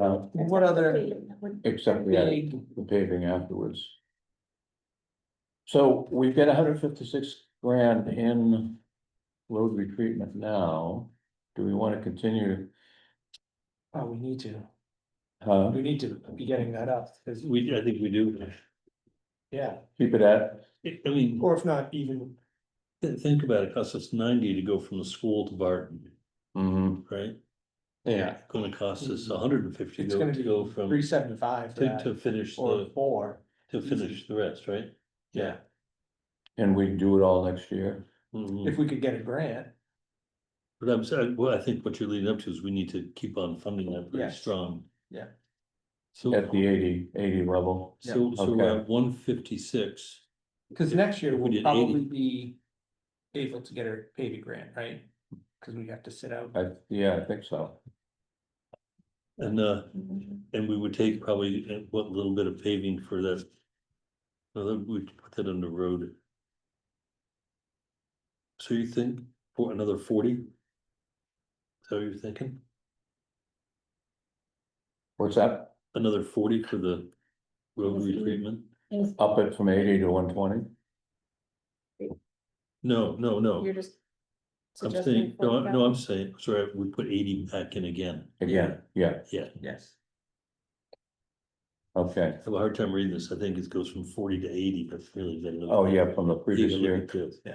Uh, What other except we had big, the paving afterwards. So we've got hundred fifty-six grand in road retreatment now. Do we want to continue? oh, we need to, Uh, we need to be getting that up, because, We, I think we do. yeah, keep it at, I- I mean, or if not even, th- think about it, costs us ninety to go from the school to Barton, mhm, right? yeah, It's Gonna cost us hundred and fifty Mm-hmm. It's gonna to be go from, three seventy-five for to, to that, finish or the, four. to finish the rest, right? Yeah. and we do it all next year. Mhm. If we could get a grant, But I'm saying, well, I think what you're leading up to is we need to keep on funding that very Yes. strong. Yeah. So, At the 80 80 level, so, so Okay. we're at one fifty-six, because next year If we we'll did probably be able to get a paving grant, right? Because we have to sit out. I, yeah, I think so. and, uh, and we would take probably, uh, what little bit of paving for that. Well, then we'd put that under road. So you think, for another forty? So you're thinking, What's that? another forty for the road retreatment? Up it from eighty to one twenty? No, no, no, You're just. I'm suggesting saying, no, I- 45? no, I'm saying, sorry, we put eighty back in again. Again, yeah, Yeah, Yes. okay. I have a hard time reading this, I think it goes from forty to eighty, but really. they don't- Oh, yeah, from the They don't previous year, look at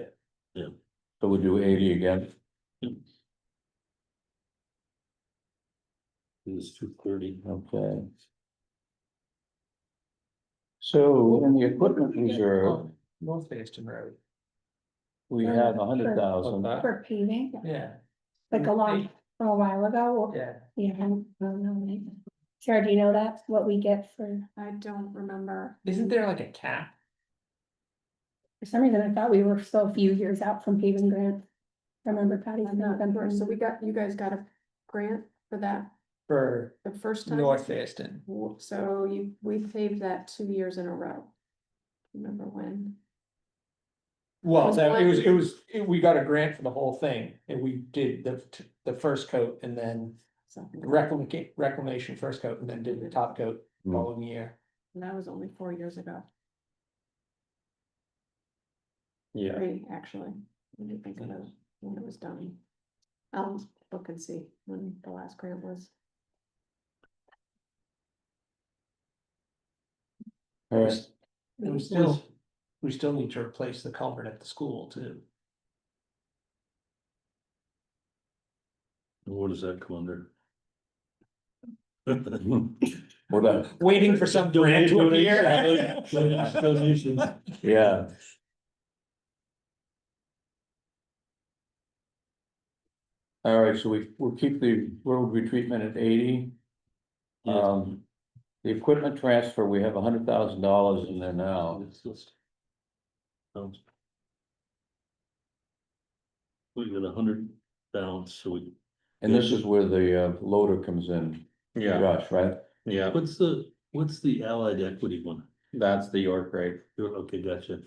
it. so we do eighty again, It was two thirty. okay. So in the equipment reserve, Um, North Basin Road, we have a hundred thousand. For paving, yeah, like a long, from a while ago, yeah, yeah, I don't know. Sarah, do you know that, what we get for, I don't remember. isn't there like a cap? for some reason, I thought we were still a few years out from paving grant. Remember Patty? I'm not sure. So we got, you guys got a grant for that For the first time? North Basin, W- So you, we paved that two years in a row. Remember when? well, Was that- it one- was, it was, it- we got a grant for the whole thing, and we did the, the first coat and then. Something like Reclamation, reclamation first coat and then did the top coat Hmm. following year. That That was only four years ago, Yeah. three, actually. When you think about it, when it was done. I'll look and see when the last grant was. All right, And we still, we still need to replace the culvert at the school too. What does that come under? Well done, Waiting for some grant to appear. Donations. yeah. All right, so we, we'll keep the road retreatment at eighty. Yeah. Um, the equipment transfer, we have a hundred thousand dollars in there now. Oh, It's just- Um, We got a hundred balance, so we. And this is where the uh, loader comes in, Josh, right? yeah, What's the, what's the allied equity one? that's the York rate, You're- Okay, gotcha.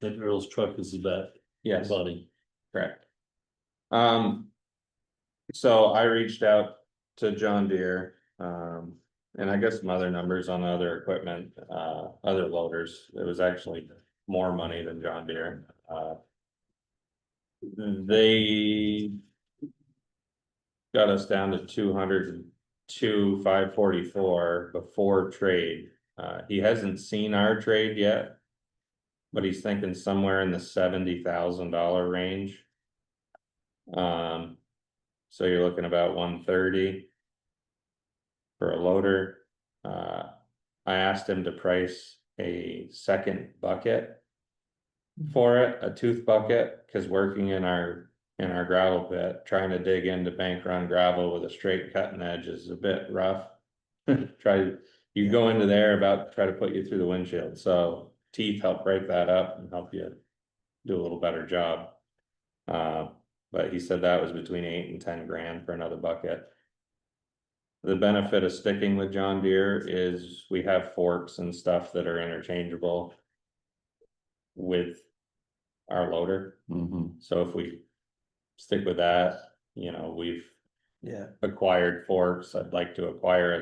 That Earl's truck is the bat, yes, body. correct. Um. So I reached out to John Deere, um, and I got some other numbers on other equipment, uh, other loaders, it was actually more money than John Deere, uh. They. Got us down to two hundred and two, five forty-four before trade, uh, he hasn't seen our trade yet. But he's thinking somewhere in the seventy thousand dollar range. Um, so you're looking about one thirty. For a loader, uh, I asked him to price a second bucket. For it, a tooth bucket, cause working in our, in our gravel pit, trying to dig into bank run gravel with a straight cutting edge is a bit rough. Try, you go into there about, try to put you through the windshield, so teeth help break that up and help you do a little better job. Uh, but he said that was between eight and ten grand for another bucket. The benefit of sticking with John Deere is we have forks and stuff that are interchangeable. With our loader, Mhm. so if we stick with that, you know, we've Yeah. acquired forks, I'd like to acquire a